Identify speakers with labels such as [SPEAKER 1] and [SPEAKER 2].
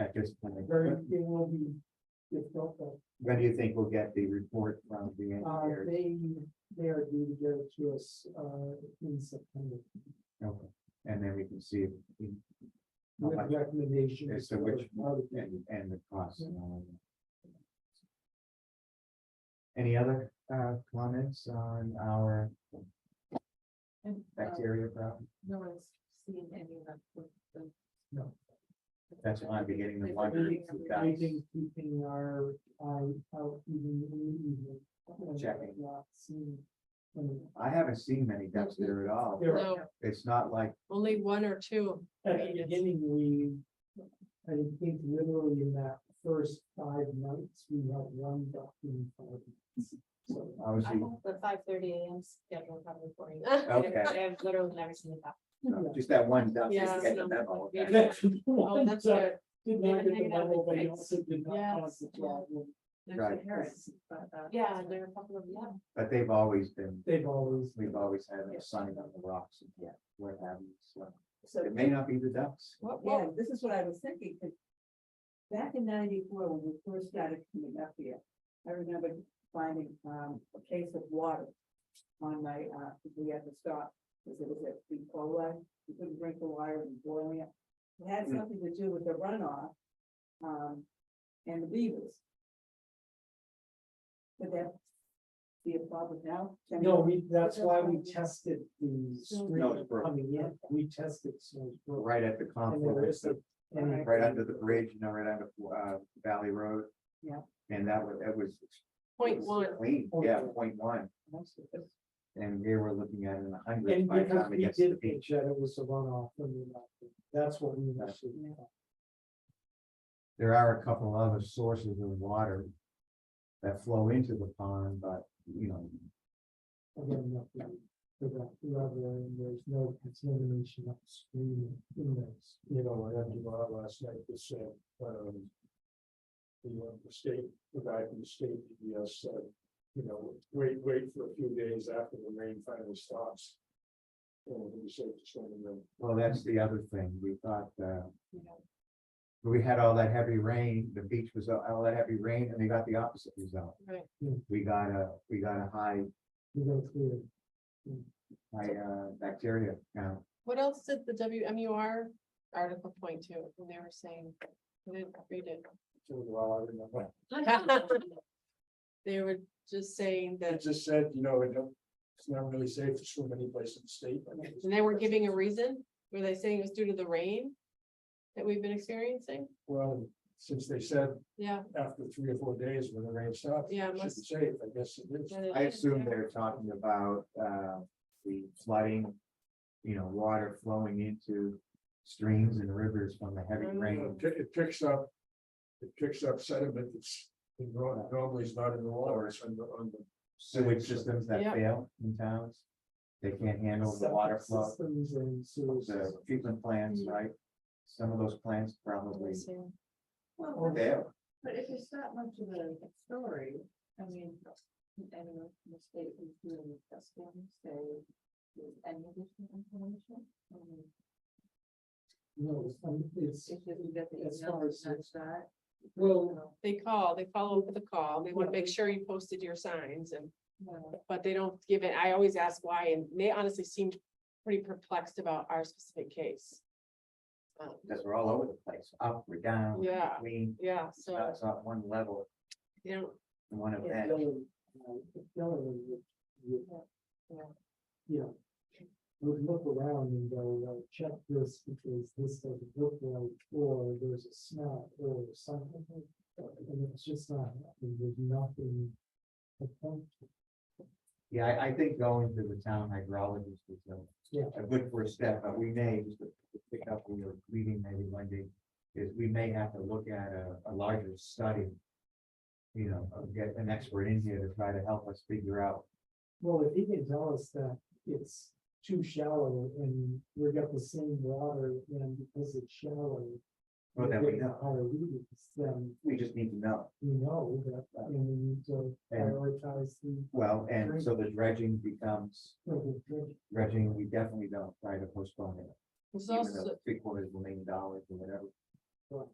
[SPEAKER 1] that just kind of,
[SPEAKER 2] very,
[SPEAKER 1] when
[SPEAKER 2] it will be difficult, but,
[SPEAKER 1] when do you think we'll get the report from the
[SPEAKER 2] uh,
[SPEAKER 1] engineers?
[SPEAKER 2] they, they are due to get it to us, uh, in September.
[SPEAKER 1] Okay. And then we can see if we- How
[SPEAKER 2] With
[SPEAKER 1] much?
[SPEAKER 2] recommendations.
[SPEAKER 1] as to
[SPEAKER 2] for
[SPEAKER 1] which,
[SPEAKER 2] how to-
[SPEAKER 1] and, and the cost and all of that. Any other, uh, comments on our
[SPEAKER 3] And, uh,
[SPEAKER 1] bacteria problem?
[SPEAKER 3] no one's seen any of them with the.
[SPEAKER 2] No.
[SPEAKER 1] That's why I'm beginning to wonder.
[SPEAKER 2] Anything,
[SPEAKER 1] if that's-
[SPEAKER 2] keeping our, eye out even in the evening.
[SPEAKER 1] Checking.
[SPEAKER 2] Not seeing. um,
[SPEAKER 1] I haven't seen many ducks there at all.
[SPEAKER 2] There
[SPEAKER 3] No,
[SPEAKER 1] It's not like,
[SPEAKER 3] only one or two.
[SPEAKER 2] At the beginning, we, I think literally in that first five nights, we had one duck in five. nights. So,
[SPEAKER 4] I
[SPEAKER 1] obviously,
[SPEAKER 4] have the five thirty AM schedule probably for you.
[SPEAKER 1] Okay.
[SPEAKER 4] I've literally never seen it that.
[SPEAKER 2] yeah.
[SPEAKER 1] just that one duck.
[SPEAKER 3] Yeah.
[SPEAKER 1] didn't get the memo.
[SPEAKER 4] Yeah.
[SPEAKER 2] That's the
[SPEAKER 3] Oh,
[SPEAKER 2] one
[SPEAKER 3] that's
[SPEAKER 2] that Did
[SPEAKER 3] good.
[SPEAKER 2] not get the
[SPEAKER 4] Maybe that
[SPEAKER 2] memo,
[SPEAKER 4] would
[SPEAKER 2] but it
[SPEAKER 4] fix-
[SPEAKER 2] also did not
[SPEAKER 3] Yes,
[SPEAKER 2] cause the
[SPEAKER 3] yeah.
[SPEAKER 2] problem.
[SPEAKER 3] There's
[SPEAKER 1] Right.
[SPEAKER 3] the parrots, but, uh,
[SPEAKER 4] Yeah, there are a couple of, yeah.
[SPEAKER 1] But they've always been,
[SPEAKER 2] They've always,
[SPEAKER 1] we've always had
[SPEAKER 3] Yeah.
[SPEAKER 1] a sign on the rocks. and
[SPEAKER 3] Yeah.
[SPEAKER 1] Where having, so
[SPEAKER 5] So,
[SPEAKER 1] it may not be the ducks.
[SPEAKER 5] what- yeah, this is what I was thinking, 'cause back in ninety-four, when we first started coming up here, I remember finding, um, a case of water on my, uh, we had to stop, because it was at the cola, you couldn't drink the water and boiling it. It had
[SPEAKER 1] Mm.
[SPEAKER 5] something to do with the runoff, um, and the beavers. Could that be a problem now? Can
[SPEAKER 2] no,
[SPEAKER 5] we-
[SPEAKER 2] we, that's why we tested the stream
[SPEAKER 1] Snowsboro.
[SPEAKER 2] coming in, we tested Snowsboro.
[SPEAKER 1] Right at the
[SPEAKER 2] And there
[SPEAKER 1] confluence
[SPEAKER 2] is
[SPEAKER 1] of
[SPEAKER 2] a- and-
[SPEAKER 1] Oh, right under the bridge, you know, right under uh Valley Road.
[SPEAKER 5] Yeah.
[SPEAKER 1] And that was, that was.
[SPEAKER 3] Point
[SPEAKER 1] was
[SPEAKER 3] one,
[SPEAKER 1] Clean,
[SPEAKER 2] Point
[SPEAKER 1] yeah,
[SPEAKER 2] one.
[SPEAKER 1] point one, and we were looking at it in a hundred
[SPEAKER 2] And
[SPEAKER 1] by the
[SPEAKER 2] because
[SPEAKER 1] time it
[SPEAKER 2] we
[SPEAKER 1] gets to the
[SPEAKER 2] did
[SPEAKER 1] beach.
[SPEAKER 2] think that it was a runoff, and we left it. that's what we actually.
[SPEAKER 1] There are a couple other sources of water that flow into the pond, but, you know,
[SPEAKER 2] again, nothing for that level, and there's no contamination upstream in those. You know, I had to go out last night to say, um, the, uh, the state, the guy from the state, yes, said, you know, wait, wait for a few days after the rain finally stops. And he said, just let them know.
[SPEAKER 1] well, that's the other thing, we thought, uh,
[SPEAKER 4] You know,
[SPEAKER 1] we had all that heavy rain, the beach was all all that heavy rain, and we got the opposite result.
[SPEAKER 3] Right.
[SPEAKER 2] Yeah.
[SPEAKER 1] We got a, we got a high,
[SPEAKER 2] We're gonna clear it.
[SPEAKER 1] high uh bacteria count.
[SPEAKER 3] what else did the WMUR article point to, and they were saying, I didn't read it.
[SPEAKER 2] So, well, I didn't know.
[SPEAKER 3] They were just saying
[SPEAKER 2] It
[SPEAKER 3] that,
[SPEAKER 2] just said, you know, it don't- it's not really safe to swim any place in the state. I mean,
[SPEAKER 3] and they were giving a reason, were they saying it was due to the rain? That we've been experiencing,
[SPEAKER 2] Well, since they said
[SPEAKER 3] yeah.
[SPEAKER 2] after three or four days when the rain stops.
[SPEAKER 3] Yeah,
[SPEAKER 2] it should be
[SPEAKER 3] must-
[SPEAKER 2] Safe, I guess it is.
[SPEAKER 3] that it
[SPEAKER 1] I
[SPEAKER 3] is,
[SPEAKER 1] assume
[SPEAKER 3] yeah.
[SPEAKER 1] they're talking about uh the flooding, you know, water flowing into streams and rivers from the heavy
[SPEAKER 3] Mm.
[SPEAKER 1] rain.
[SPEAKER 6] It pi- It picks up, it picks up sediment that's in nor- normally is not in the water, it's on the, on the.
[SPEAKER 1] Sewage systems that
[SPEAKER 3] Yeah.
[SPEAKER 1] fail in towns, they can't handle the water flow,
[SPEAKER 2] Systems and sewers.
[SPEAKER 1] the treatment plants,
[SPEAKER 3] Mm.
[SPEAKER 1] right? Some of those plants probably
[SPEAKER 3] Interesting.
[SPEAKER 4] Well, but-
[SPEAKER 1] fail.
[SPEAKER 4] but if it's not much of a story, I mean, I don't know, if the state is doing testing, so is any additional information? I mean,
[SPEAKER 2] No, it's- um, it's,
[SPEAKER 4] If you get the
[SPEAKER 2] As
[SPEAKER 4] email,
[SPEAKER 2] far
[SPEAKER 4] it's
[SPEAKER 2] as
[SPEAKER 4] not
[SPEAKER 2] it's-
[SPEAKER 4] that.
[SPEAKER 2] well,
[SPEAKER 4] no,
[SPEAKER 3] They call, they follow up with a call, they want to make sure you posted your signs and,
[SPEAKER 4] no.
[SPEAKER 3] but they don't give it, I always ask why, and they honestly seemed pretty perplexed about our specific case. Um,
[SPEAKER 1] Because we're all over the place, up, we're down.
[SPEAKER 3] Yeah.
[SPEAKER 1] Between,
[SPEAKER 3] Yeah, so,
[SPEAKER 1] that's not one level,
[SPEAKER 3] you know,
[SPEAKER 1] one
[SPEAKER 2] it's
[SPEAKER 1] event.
[SPEAKER 2] going, uh, it's going with- with-
[SPEAKER 3] Yeah.
[SPEAKER 2] Yeah. We look around and go, well, check this because this doesn't look right, or there's a smell or something. And it's just not, happening. there's nothing. to point to.
[SPEAKER 1] Yeah, I, I think going to the town hydrologist is
[SPEAKER 2] Yeah.
[SPEAKER 1] a, a good first step, but we may, just to to pick up where you're leaving maybe Wendy, is we may have to look at a, a larger study. You know, of get an expert in here to try to help us figure out,
[SPEAKER 2] Well, if he can tell us that it's too shallow and we got the same water and because it's shallow.
[SPEAKER 1] well,
[SPEAKER 2] we're
[SPEAKER 1] then we
[SPEAKER 2] getting
[SPEAKER 1] know,
[SPEAKER 2] Higher readings, then
[SPEAKER 1] we just need to know.
[SPEAKER 2] we know that, and we need to
[SPEAKER 1] And-
[SPEAKER 2] prioritize the.
[SPEAKER 1] Well, and so the dredging becomes,
[SPEAKER 2] the dredge.
[SPEAKER 1] dredging, we definitely don't try to postpone it.
[SPEAKER 3] there's
[SPEAKER 1] even
[SPEAKER 3] also,
[SPEAKER 1] though Three quarters of a million dollars or whatever.